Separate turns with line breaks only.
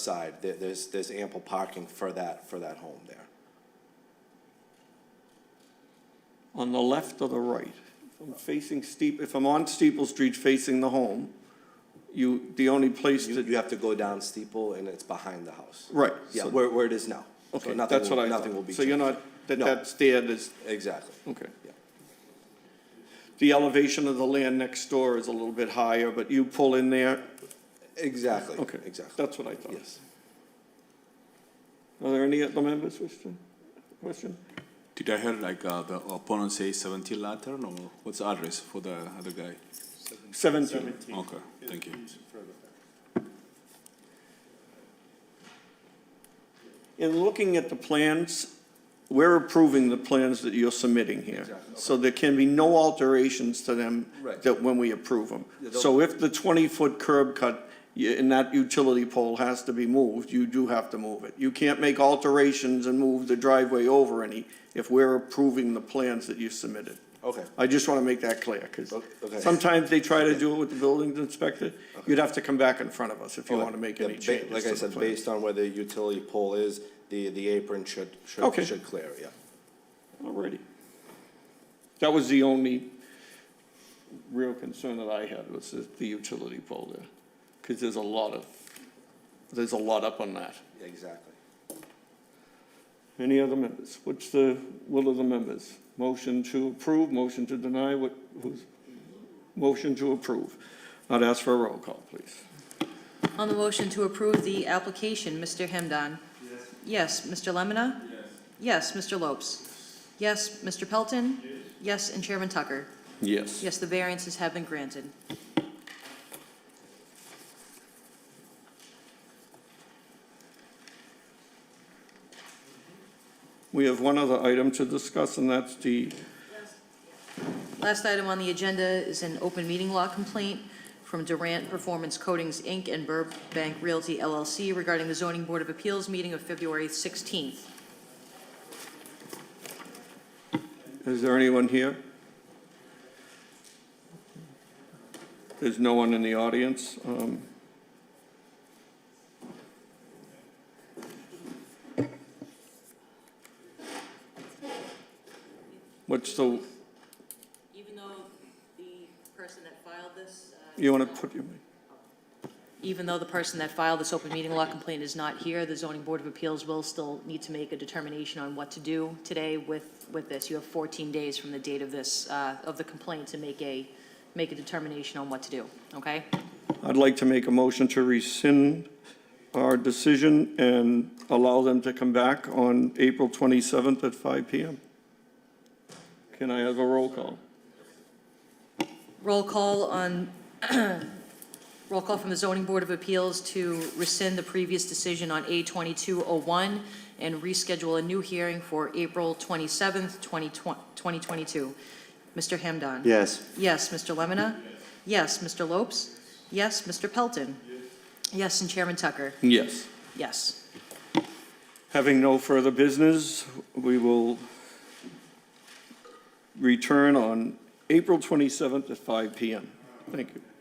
side, there, there's, there's ample parking for that, for that home there.
on the left or the right? If I'm facing steep, if I'm on Steeple Street facing the home, you, the only place
You, you
that,
have to go down Steeple and it's behind the house.
right.
Yeah,
so-
where, where it is now. So
Okay,
nothing
that's
will-
what I
Nothing will be
thought.
changed.
So you're not, that
No.
that's there, there's,
Exactly.
okay.
Yeah.
The elevation of the land next door is a little bit higher, but you pull in there,
Exactly.
okay.
Exactly.
That's what I thought.
Yes.
Are there any other members wish to, question?
Did I hear like uh, the opponent say 17 Lantern or what's the address for the other guy?
Seventeen.
Okay, thank you.
In looking at the plans, we're approving the plans that you're submitting here.
Exactly, okay.
So there can be no alterations to them
Right.
that when we approve them.
Yeah, they'll-
So if the 20-foot curb cut y- and that utility pole has to be moved, you do have to move it. You can't make alterations and move the driveway over any if we're approving the plans that you submitted.
Okay.
I just want to make that clear, because
Okay.
sometimes they try to do it with the building inspector. You'd have to come back in front of us if you
Okay.
want to make
Yeah,
any
ba-
changes
Like
to
I
the
said,
plan.
based on where the utility pole is, the, the apron should,
Okay.
should, should clear, yeah.
Alrighty. That was the only real concern that I had was the- the utility pole there, because there's a lot of, there's a lot up on that.
Exactly.
Any other members? What's the will of the members? Motion to approve, motion to deny, what, who's, motion to approve. I'd ask for a roll call, please.
On the motion to approve the application, Mr. Hemdan. Yes. Mr. Lemonna? Yes. Mr. Lopes? Yes, Mr. Pelton? Yes. and Chairman Tucker.
Yes.
Yes, the variances have been granted.
We have one other item to discuss, and that's the
Last item on the agenda is an open meeting law complaint from Durant Performance Coatings, Inc. and Burbank Realty LLC regarding the zoning board of appeals meeting of February 16th.
Is there anyone here? There's no one in the audience. um, What's the,
Even though the person that filed this. uh,
you want to put, your-
even though the person that filed this open meeting law complaint is not here, the zoning board of appeals will still need to make a determination on what to do today with, with this. You have 14 days from the date of this, uh, of the complaint to make a, make a determination on what to do, okay?
I'd like to make a motion to rescind our decision and allow them to come back on April 27th at 5 PM. Can I have a roll call?
Roll call on, roll call from the zoning board of appeals to rescind the previous decision on A2201 and reschedule a new hearing for April 27th, 2022. Mr. Hamdan?
Yes.
Yes, Mr. Lemonna? Yes, Mr. Lopes? Yes, Mr. Pelton? Yes, and Chairman Tucker?
Yes.
Yes.
Having no further business, we will return on April 27th at 5 PM. Thank you.